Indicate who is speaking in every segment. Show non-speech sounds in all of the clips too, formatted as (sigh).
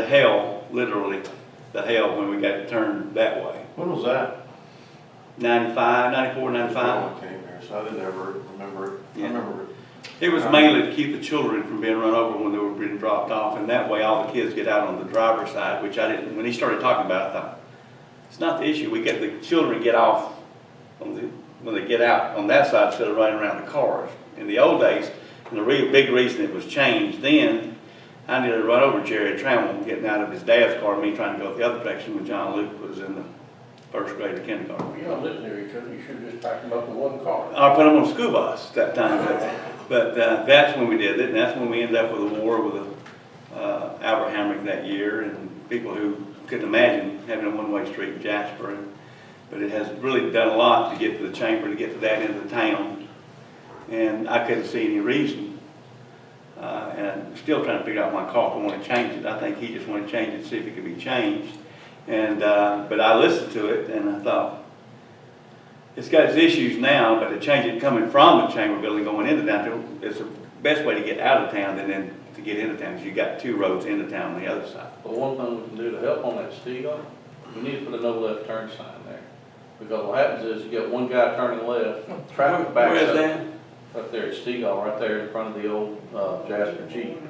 Speaker 1: The hell, literally, the hell when we got turned that way.
Speaker 2: When was that?
Speaker 1: 95, 94, 95.
Speaker 2: I came here, so I didn't ever remember it. I
Speaker 1: Yeah.
Speaker 2: remember it.
Speaker 1: It was mainly to keep the children from being run over when they were being dropped off, and that way all the kids get out on the driver's side, which I didn't, when he started talking about it, I thought, it's not the issue, we get, the children get off on the, when they get out on that side instead of running around the cars. In the old days, and the real big reason it was changed then, I nearly run over Jerry Trammell getting out of his dad's car, me trying to go the other direction when John Luke was in the first grade or kindergarten.
Speaker 3: You're not living there, you could, you should just pack them up in one car.
Speaker 1: I put them on school bus that time, but, but uh, that's when we did it, and that's when we ended up with a war with uh, Albert Hamrick that year, and people who couldn't imagine having a one-way street in Jasper. And- But it has really done a lot to get to the chamber, to get to that end of the town, and I couldn't see any reason. Uh, And I'm still trying to figure out, my Carter wanted to change it, I think he just wanted to change it, see if it could be changed. And, uh, but I listened to it, and I thought, it's got its issues now, but to change it coming from the chamber building going into downtown, it's the best way to get out of town than then to get into town, because you got two roads into town on the other side.
Speaker 3: But one thing we can do to help on that, Steve, we need to put a no left turn sign there. Because what happens is you get one guy turning left, traffic backs
Speaker 1: Where's
Speaker 3: up.
Speaker 1: that?
Speaker 3: Up there at Stegall, right there in front of the old, uh, Jasper Jeep.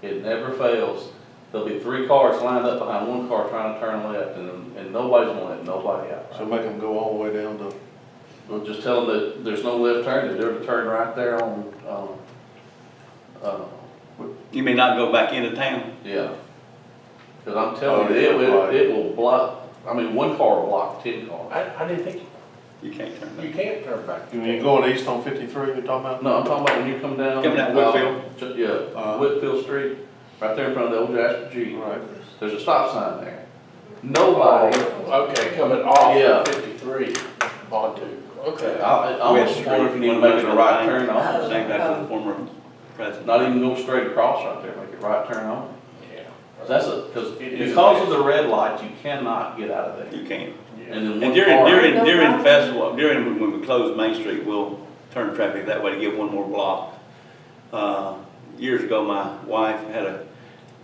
Speaker 3: It never fails. There'll be three cars lined up behind one car trying to turn left and, and nobody's gonna let nobody out.
Speaker 2: So make them go all the way down to,
Speaker 3: Well, just tell them that there's no left turn, that they're to turn right there on, um, uh,
Speaker 1: You may not go back into town.
Speaker 3: Yeah. Cause I'm
Speaker 2: Oh,
Speaker 3: telling you, it
Speaker 2: yeah,
Speaker 3: will,
Speaker 2: right.
Speaker 3: it will block, I mean, one car will block ten cars.
Speaker 4: I, I didn't think,
Speaker 1: You can't turn
Speaker 4: you
Speaker 1: that.
Speaker 4: can't turn back.
Speaker 2: when you're going east on fifty-three, you're talking about?
Speaker 3: No, I'm talking about when you come down.
Speaker 1: Coming down
Speaker 3: uh,
Speaker 1: Whitfield?
Speaker 3: Ch- Yeah,
Speaker 2: Uh-huh.
Speaker 3: Whitfield Street, right there in front of the old Jasper Jeep.
Speaker 2: Right.
Speaker 3: There's a stop sign there. Nobody,
Speaker 2: Oh.
Speaker 4: Okay, coming off
Speaker 3: Yeah.
Speaker 4: of fifty-three, Bontu,
Speaker 3: I,
Speaker 4: okay.
Speaker 3: I almost wonder if you need to make it a right turn on.
Speaker 1: Saying back to the former president.
Speaker 3: Not even go straight across right there, make it right turn on.
Speaker 4: Yeah.
Speaker 3: 'Cause That's a, cause
Speaker 4: It is.
Speaker 3: because of the red light, you cannot get out of there.
Speaker 1: You can't.
Speaker 3: And then one car.
Speaker 1: And during, during, during festival, during, when we close Main Street, we'll turn traffic that way to get one more block. Uh, Years ago, my wife had a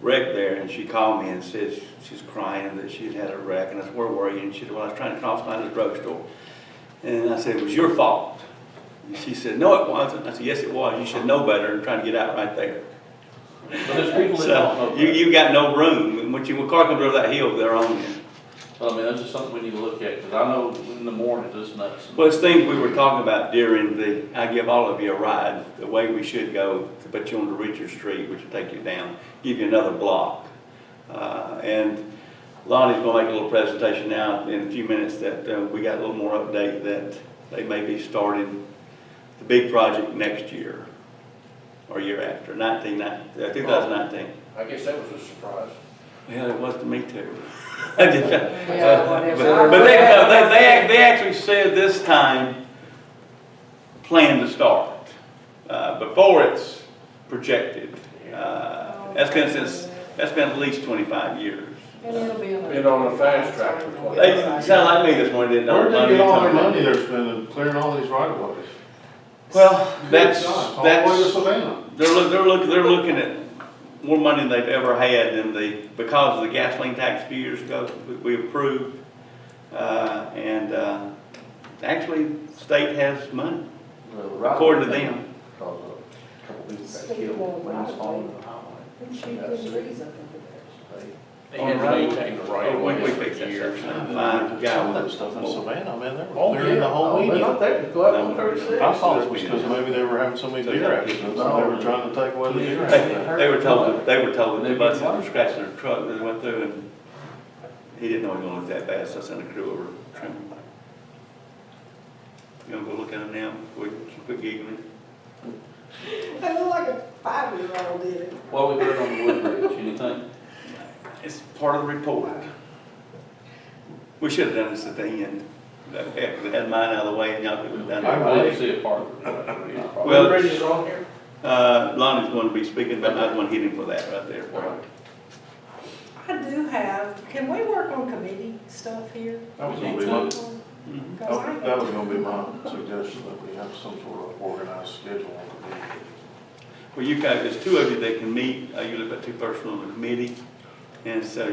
Speaker 1: wreck there, and she called me and said, she's crying that she'd had a wreck, and I said, where were you? And she said, well, I was trying to cross by the drugstore. And I said, it was your fault. And she said, no, it wasn't. I said, yes, it was. You should know better and try to get out right there.
Speaker 3: But there's people that don't know.
Speaker 1: So, you,
Speaker 3: that.
Speaker 1: you got no room. When- When you, when a car comes over that hill, they're on you.
Speaker 3: Well, I mean, that's just something we need to look at, because I know in the morning, it's nuts.
Speaker 1: Well, it's things we were talking about during the, I give all of you a ride, the way we should go, to put you on the Richard Street, which will take you down, give you another block. Uh, and Lonnie's gonna make a little presentation now in a few minutes that, uh, we got a little more update that they may be starting the big project next year or year after, nineteen, uh, two thousand nineteen.
Speaker 4: I guess that was a surprise.
Speaker 1: Well, it was to me too. (laughs) I just-
Speaker 5: Yeah,
Speaker 1: But but they, no, they, they, act- they actually said this time, plan to start, uh, before it's projected. Uh, That's been since, that's been at least twenty-five years.
Speaker 5: And it'll be on.
Speaker 4: Been on a fast track for twenty.
Speaker 1: They sound like me this morning, didn't they?
Speaker 2: Where did they get all their money they're spending, clearing all these right of ways?
Speaker 1: Well, that's,
Speaker 2: All the way to
Speaker 1: that's,
Speaker 2: (clears throat) Savannah.
Speaker 1: they're, look- they're looking, they're looking at more money than they've ever had than the, because of the gasoline tax a few years ago, we- we approved. Uh, and, uh, actually, state has money, according to them.
Speaker 4: They had to maintain the right of
Speaker 1: Oh, we,
Speaker 4: way
Speaker 1: we
Speaker 4: for
Speaker 1: fix that
Speaker 4: years.
Speaker 1: section.
Speaker 2: Some
Speaker 1: Fine,
Speaker 2: of
Speaker 1: guy
Speaker 2: that
Speaker 1: with
Speaker 2: stuff in
Speaker 1: Well,
Speaker 2: Savannah, man, they
Speaker 4: Oh,
Speaker 2: were clearing the
Speaker 4: yeah.
Speaker 2: whole
Speaker 3: They're
Speaker 2: median.
Speaker 3: not there, go out on
Speaker 2: I
Speaker 3: thirty-six.
Speaker 2: thought it was because maybe they were having so many deer accidents, and they were trying to take away the deer accidents.
Speaker 1: They,
Speaker 2: (laughs)
Speaker 1: they were told, that- they were told that the buses were scratching their truck, and they went through and he didn't know it was gonna look that bad, so I sent a crew over to trim him. You gonna go look at him now, before you quit giggling?
Speaker 5: They look like a five-year-old did it.
Speaker 3: Well, we put it on the wood bridge, anything?
Speaker 1: It's part of the report. We should've done this at the end, Heck, if they had mine out of the way and y'all could've done
Speaker 3: I
Speaker 1: it.
Speaker 3: didn't see a part of it.
Speaker 1: Well-
Speaker 4: Bridge is on here?
Speaker 1: Uh, Lonnie's gonna be speaking, but I want to hit him for that right there for him.
Speaker 5: I do have, can we work on committee stuff here?
Speaker 2: That was gonna be my- Mm-hmm.
Speaker 5: Because
Speaker 1: Mhm.
Speaker 5: I-
Speaker 2: Oh, That was gonna be my suggestion, that we have some sort of organized schedule on the meetings.
Speaker 1: Well, you guys, there's two of you that can meet, uh, you live at two person on the committee. And so